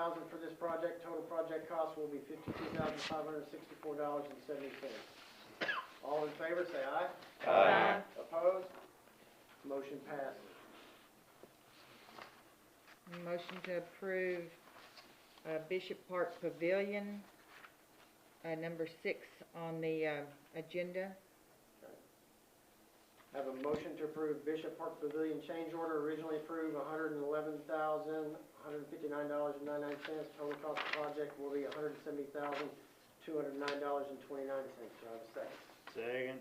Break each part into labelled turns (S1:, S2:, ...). S1: thousand for this project, total project cost will be fifty-two thousand five hundred sixty-four dollars and seventy cents. All in favor, say aye.
S2: Aye.
S1: Opposed? Motion passes.
S2: Motion to approve uh, Bishop Park Pavilion, uh, number six on the uh, agenda.
S1: Have a motion to approve Bishop Park Pavilion change order originally approved, hundred and eleven thousand, one hundred and fifty-nine dollars and ninety-nine cents. Total cost of project will be hundred and seventy thousand, two hundred and nine dollars and twenty-nine cents. Do I have a second?
S3: Second.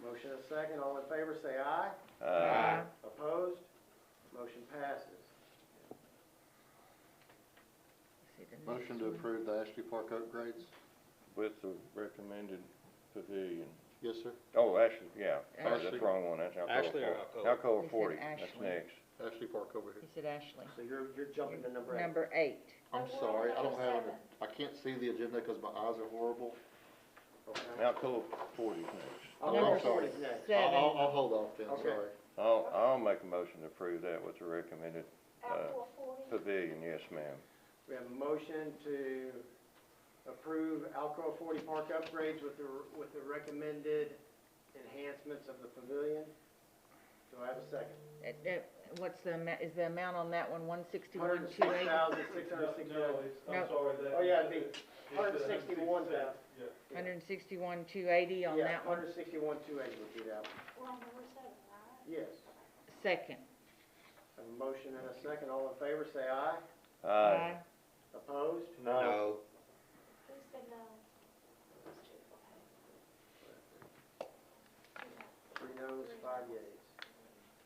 S1: Motion and a second. All in favor, say aye.
S2: Uh,
S1: Opposed? Motion passes.
S2: let's see the next
S4: Motion to
S2: one.
S4: approve the Ashley Park upgrades?
S5: With the recommended pavilion.
S4: Yes, sir.
S5: Oh, actually, yeah, sorry,
S4: Ashley.
S5: that's the wrong one, that's Alcoa
S3: Ashley or
S5: forty.
S3: Alcoa?
S2: He said
S5: Alcoa forty, that's
S2: Ashley.
S5: next.
S4: Ashley Park over
S2: He
S4: here.
S2: said Ashley.
S1: So you're, you're jumping to number eight.
S2: Number eight.
S4: I'm
S6: Oh, we're
S4: sorry,
S6: on
S4: I don't have,
S6: number
S4: I can't see the agenda because my eyes are horrible.
S1: Okay.
S5: Alcoa forty is next.
S1: I'll go
S4: Number
S1: forward
S4: six.
S1: next.
S4: I'll,
S2: Seven.
S4: I'll, I'll hold off then,
S1: Okay.
S4: sorry.
S5: I'll, I'll make a motion to approve that with the recommended
S6: Outdoor forty,
S5: pavilion, yes, ma'am.
S1: We have a motion to approve Alcoa forty park upgrades with the, with the recommended enhancements of the pavilion. Do I have a second?
S4: Uh-huh.
S2: Uh, uh, What's the, ama- is the amount on that one, one sixty-one,
S1: Hundred
S2: two
S1: six
S2: eighty?
S1: thousand, six hundred
S7: No,
S1: sixty-nine.
S7: it's,
S2: No.
S7: I'm sorry, that.
S1: Oh, yeah, it'd be
S7: it's a
S1: hundred sixty-one thousand.
S7: Yeah.
S2: Hundred and sixty-one, two eighty on
S1: Yeah,
S2: that one.
S1: hundred sixty-one, two eighty would be that one.
S6: we're on number seven, right?
S1: Yes.
S2: Second.
S1: Have a motion and a second. All in favor, say aye.
S5: Aye.
S1: Opposed?
S3: No.
S6: Who said no? Those two, okay.
S1: Three noes, five yeas.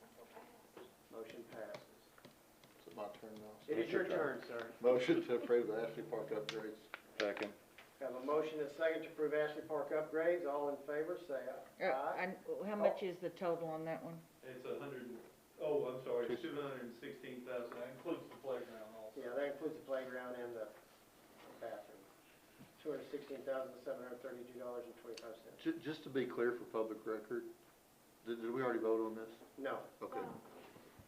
S6: That's okay.
S1: Motion passes.
S4: Is it my turn now?
S1: It is your turn, sir.
S4: Motion to approve the Ashley Park upgrades.
S5: Second,
S1: Have a motion and a second to approve Ashley Park upgrades. All in favor, say aye.
S2: Uh, and how much is the total on that one?
S7: It's a hundred, and- oh, I'm sorry, it's two hundred and sixteen thousand, that includes the playground also.
S1: Yeah, that includes the playground and the bathroom. Two hundred sixteen thousand, seven hundred thirty-two dollars and twenty-five cents.
S4: Ju- just to be clear for public record, did, did we already vote on this?
S1: No,
S4: Okay.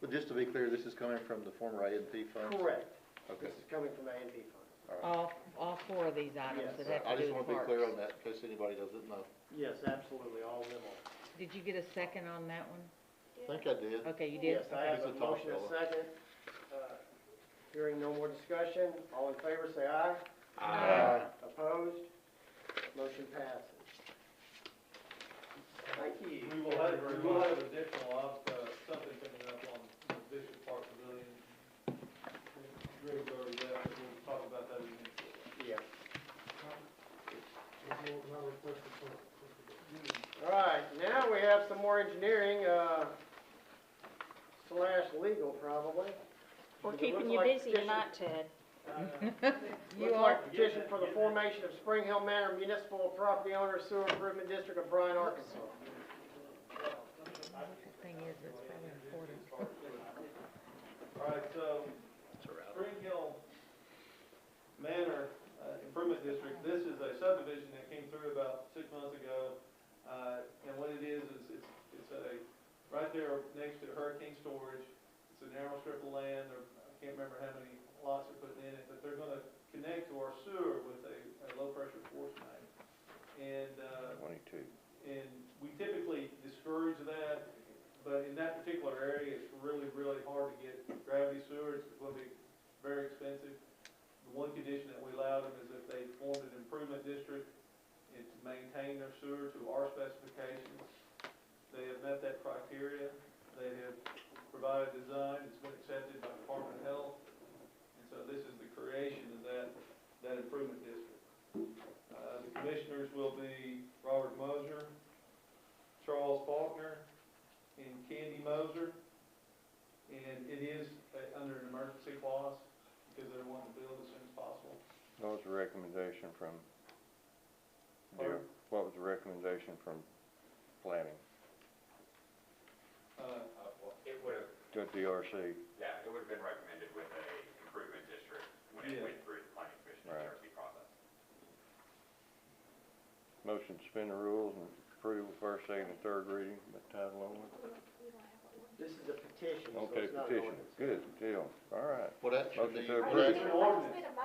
S4: But just to be clear, this is coming from the former A and P fund?
S1: correct.
S4: Okay.
S1: This is coming from A and P funds.
S2: All, all four of these items
S1: Yes.
S2: that
S4: I
S2: have to
S4: just
S2: do
S4: wanna
S2: with
S4: be clear on
S2: parks.
S4: that in case anybody doesn't know.
S1: Yes, absolutely, all of them are.
S2: Did you get a second on that one?
S4: I think I did.
S2: Okay, you did.
S1: Yes, I have
S4: It's
S1: a
S4: a toss,
S1: motion and a
S4: Ella.
S1: second. Uh, Hearing no more discussion, all in favor, say aye.
S2: Aye.
S1: Opposed? Motion passes. Thank you.
S7: We will have, we will have additional, op- uh, something coming up on the Bishop Park Pavilion. Greg's already got it, we'll talk about that in a minute.
S1: Yeah. All right, now we have some more engineering, uh, slash legal probably.
S8: We're
S1: Because it
S8: keeping
S1: looks
S8: you
S1: like
S8: busy
S1: petition- Uh,
S8: tonight, Ted.
S2: You
S1: Looks
S2: are,
S1: like petition for the formation of Spring Hill Manor Municipal Property Owner Sewer Improvement District of Bryan, Arkansas.
S2: the thing is, it's probably important.
S7: All right, so Spring Hill Manor uh, Improvement District, this is a subdivision that came through about six months ago. Uh, And what it is, is it's, it's a, right there next to Hurricane Storage, it's a narrow strip of land, or I can't remember how many lots are putting in it, but they're gonna connect to our sewer with a, a low-pressure force main. And, uh,
S5: twenty-two.
S7: and we typically discourage that, but in that particular area, it's really, really hard to get gravity sewer, it's gonna be very expensive. The one condition that we allow them is if they formed an improvement district, and to maintain their sewer to our specifications. They have met that criteria, they have provided design, it's been accepted by Department of Health, and so this is the creation of that, that improvement district. Uh, The commissioners will be Robert Moser, Charles Faulkner, and Candy Moser. And it is uh, under an emergency clause because they're wanting to build as soon as possible.
S5: What was the recommendation from,
S7: Pardon?
S5: what was the recommendation from planning
S7: Uh,
S9: Uh, well, It would have,
S5: to DRC?
S9: yeah, it would have been recommended with a improvement district when it
S7: Yeah.
S9: went through the planning commission
S5: Right.
S9: and CRC process.
S5: Motion to suspend the rules and approve with first, second, and third reading by title only?
S1: This is a petition, so
S5: Okay,
S1: it's not an
S5: petition,
S1: ordinance.
S5: good deal, all right.
S4: What action
S5: Motion
S4: do
S5: to
S4: you,
S5: approve.
S4: what
S7: It's an ordinance.
S6: It's been a